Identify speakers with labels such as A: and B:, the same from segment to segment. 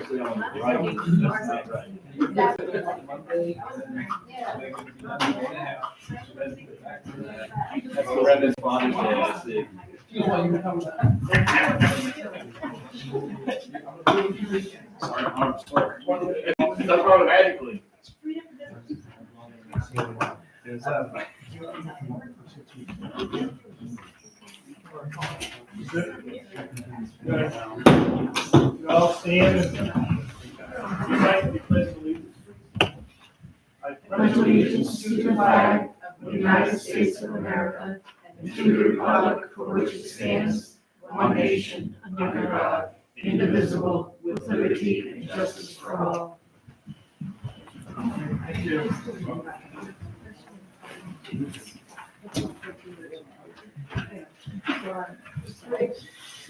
A: actually on the right. That's not right. That's the Brendan's father's day, I see. Sorry, I'm sorry. That's automatically. It's, uh,
B: You all stand and unite in pledge of allegiance. I pledge allegiance to the flag
C: of the United States of America and to the republic for which it stands, one nation, under God, indivisible, with liberty and justice for all.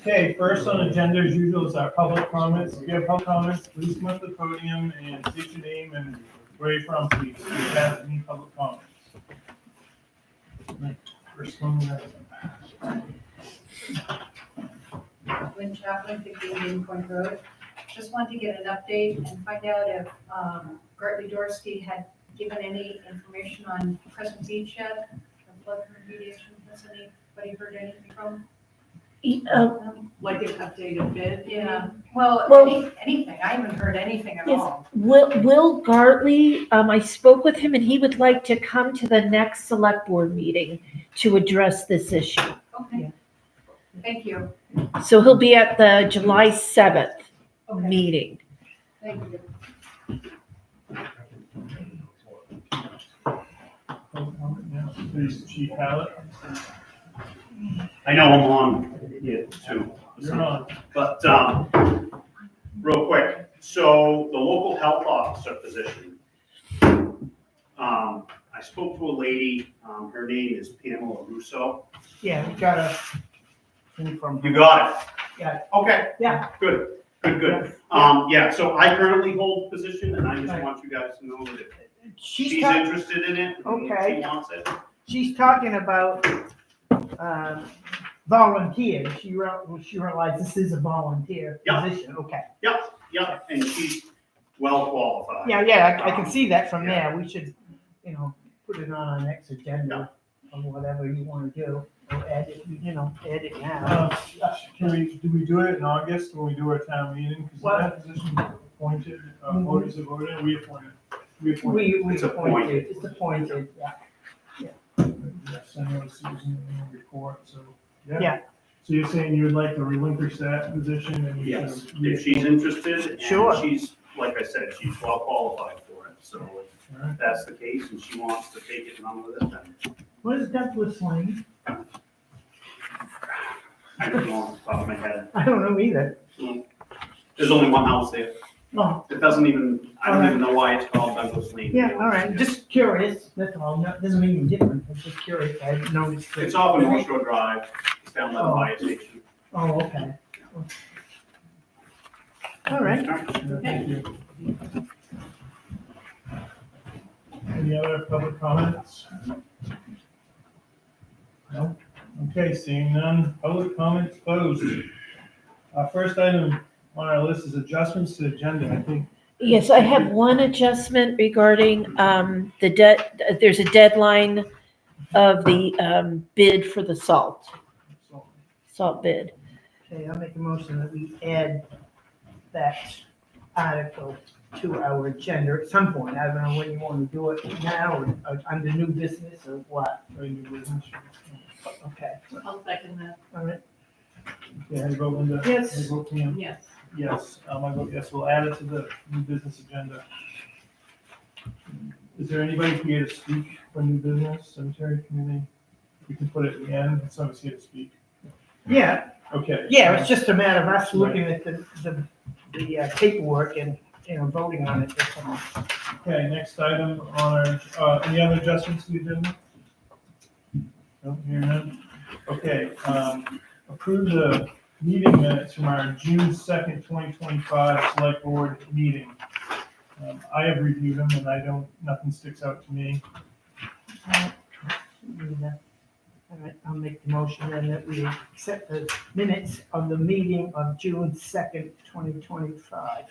B: Okay, first on agenda as usual is our public comments. If you have public comments, please come up to the podium and state your name and where you're from, please. If you have any public comments. First one, uh,
D: Lynn Chaplin, fifteen Main Point Road. Just wanted to get an update and find out if um, Gert Dorsey had given any information on Crescent Beach yet, the flood remediation, has anybody heard anything from
E: Uh,
D: them?
C: Like an updated bid?
D: Yeah, well,
E: Well-
D: any- anything, I haven't heard anything at
E: Yes.
D: all.
E: Will, Will Gartley, um, I spoke with him and he would like to come to the next select board meeting to address this issue.
D: Okay. Thank you.
E: So he'll be at the July 7th meeting.
D: Thank you.
B: public comment now. Please, Chief Hallett,
F: I know I'm on here too,
B: you're on.
F: but, um, real quick, so the local health officer position. Um, I spoke to a lady, um, her name is Pamela Russo.
G: Yeah, we got a thing from,
F: You got it?
G: Yeah.
F: Okay.
G: Yeah.
F: Good, good, good. Um, yeah, so I currently hold the position and I just want you guys to know that if
G: she's
F: she's
G: talking,
F: interested in it. and
G: Okay.
F: She wants it.
G: she's talking about, um, volunteer, she wrote, well, she realized this is a volunteer
F: Yeah.
G: position, okay.
F: Yep, and she's well qualified.
G: Yeah, yeah, I, I can see that from there, we should, you know, put it on our next agenda, or whatever you wanna do, or add it, you know, add it now.
B: Uh, Can we, do we do it in August when we do our town meeting? Because
G: What? Mm-hmm.
B: that position is appointed, uh, voters have voted, we appointed. We appointed.
G: We, we
F: It's
G: appointed, it's appointed, yeah.
B: Send out Susan a report, so, yeah.
G: Yeah.
B: So you're saying you would like to relinquish that position and you
F: Yes,
B: should.
F: if she's interested,
G: Sure.
F: and she's, like I said, she's well qualified for it, so if that's the case and she wants to take it and run with it, then
G: What is Douglas Lane?
F: I don't know off the top of my head.
G: I don't know either,
F: There's only one house there.
G: oh,
F: It doesn't even, I don't even know why it's called Douglas Lane.
G: yeah, all right, just curious, that's all, No- doesn't mean you're different, I'm just curious, I noticed. that-
F: It's off of North Shore Drive, it's down by the fire station.
G: Oh, okay. All right.
B: Thank you. Any other public comments? No? Okay, seeing none, public comments closed. Our first item on our list is adjustments to agenda, I think.
E: Yes, I have one adjustment regarding, um, the debt, there's a deadline of the, um, bid for the salt,
B: so.
E: salt bid.
G: Okay, I'll make a motion that we add that article to our agenda at some point. I don't know when you want to do it, now, or or under new business or what.
B: Any new business?
G: Okay,
C: I'll second that.
G: all right.
B: Yeah, I vote Linda.
G: Yes.
B: I vote Pam.
C: Yes.
B: Yes, um, I vote yes, we'll add it to the new business agenda. Is there anybody here to speak for new business, cemetery committee? We can put it in the end, if someone's here to speak.
G: Yeah,
B: Okay.
G: yeah, it's just a matter of us looking at the, the, the uh, paperwork and, you know, voting on it. this time.
B: Okay, next item on our, uh, any other adjustments to the agenda? Don't hear none. Okay, um, approve the meeting minutes from our June second, twenty twenty-five select board meeting. Um, I have reviewed them and I don't, nothing sticks out to me.
G: All right, I'll make the motion then that we accept the minutes of the meeting of June second, twenty twenty-five.